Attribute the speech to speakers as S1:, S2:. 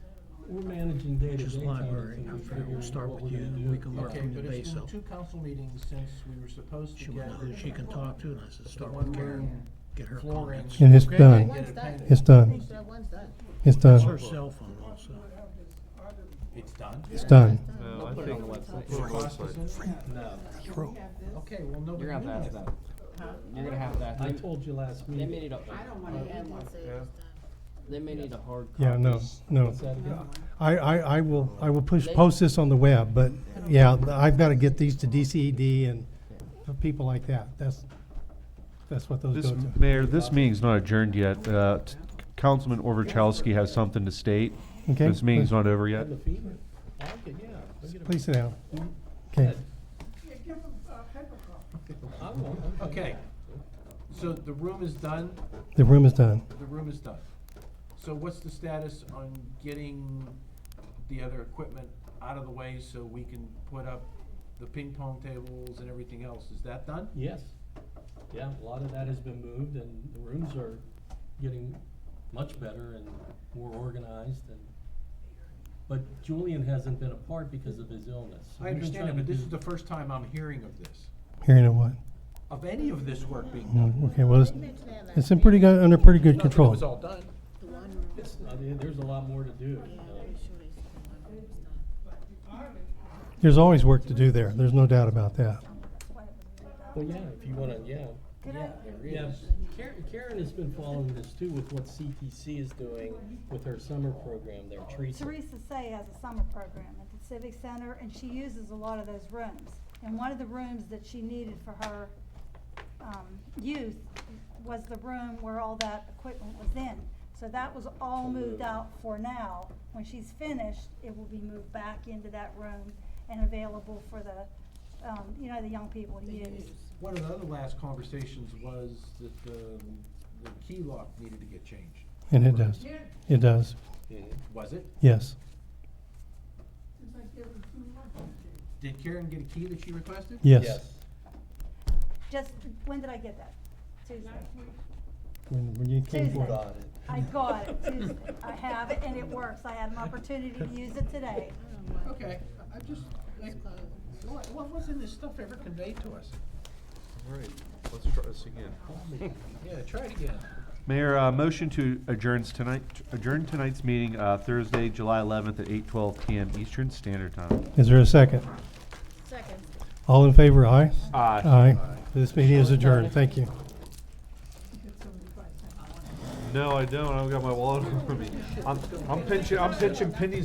S1: we're managing day to day.
S2: Just library. Fran, we'll start with you, and we can work
S3: Okay,
S2: from the
S3: but it's
S2: base
S3: been
S2: up.
S3: two council meetings since we were supposed to
S2: She won't know who
S3: get.
S2: she can talk to, and I said,
S3: The
S2: start
S3: one
S2: with Karen,
S3: room
S2: get her
S3: flooring.
S2: comments.
S4: And it's
S3: Okay,
S4: done.
S3: get it back.
S4: It's done.
S5: That one's done.
S4: It's
S2: It's her
S4: done.
S2: cell phone also.
S3: It's done?
S4: It's done.
S6: No, I
S3: Put it
S6: think
S3: on the website.
S6: Put it on the
S3: Cost is in
S6: website.
S3: there? Okay, well, nobody.
S7: You're gonna have to ask
S3: knew
S7: that. You're gonna have to ask.
S1: I
S7: They,
S1: told you last
S7: they
S1: meeting.
S7: may need a,
S5: I don't wanna add one.
S6: Yeah.
S7: they may need a hard copy.
S4: Yeah, no, no.
S1: What's that again?
S4: I, I, I will, I will push, post this on the web, but yeah, I've got to get these to DCED and people like that. That's, that's what those
S6: This,
S4: go to.
S6: Mayor, this meeting's not adjourned yet. Uh, t- Councilman Orvachowski has something to state.
S4: Okay,
S6: This meeting's
S4: please-
S6: not over yet.
S1: The fever. I like it, yeah. Look at it.
S4: Please sit down. Okay.
S1: I won't.
S3: that. Okay, so the room is done,
S4: The room is done.
S3: the room is done. So what's the status on getting the other equipment out of the way so we can put up the ping pong tables and everything else? Is that done?
S1: Yes. Yeah, a lot of that has been moved and the rooms are getting much better and more organized and, but Julian hasn't been apart because of his illness. So
S3: I
S1: we've been
S3: understand it,
S1: trying to
S3: but this
S1: do-
S3: is the first time I'm hearing of this,
S4: Hearing of what?
S3: of any of this work being done.
S4: Mm, Okay, well, it's, it's in pretty good, under pretty good
S3: Not that It was all
S4: control.
S3: done.
S5: The one room.
S1: It's, I mean, there's a lot more to do.
S5: Yeah,
S1: so.
S5: I'm sure it's the one room's done.
S4: There's always work to do there. There's no doubt about that.
S1: Well, yeah, if you wanna, yeah. Yeah, there is. Karen, Karen has been following this too with what CTC is doing with her summer program, their tree.
S8: Teresa Say has a summer program at the Civic Center, and she uses a lot of those rooms. And one of the rooms that she needed for her, um, youth was the room where all that equipment was in. So that was all moved out for now. When she's finished, it will be moved back into that room and available for the, um, you know, the young people to use.
S3: One of the other last conversations was that the, the key lock needed to get changed.
S4: And it does. It does.
S3: Was it?
S4: Yes.
S3: Did Karen get a key that she requested?
S4: Yes.
S8: Just, when did I get that? Tuesday.
S4: When, when you came
S8: Tuesday.
S4: forward.
S8: I got it Tuesday. I have it and it works. I had an opportunity to use it today.
S3: Okay, I- I'm just, like, uh, what, what wasn't this stuff ever conveyed to us?
S6: All right, let's try this again.
S3: Yeah, try it again.
S6: Mayor, uh, motion to adjourns tonight, adjourn tonight's meeting, uh, Thursday, July eleventh at eight twelve PM Eastern Standard Time.
S4: Is there a second?
S5: Second.
S4: All in favor, aye?
S6: Aye.
S4: Aye. This meeting is adjourned. Thank you.
S6: No, I don't. I've got my wallet on me. I'm, I'm pinching, I'm pinching pennies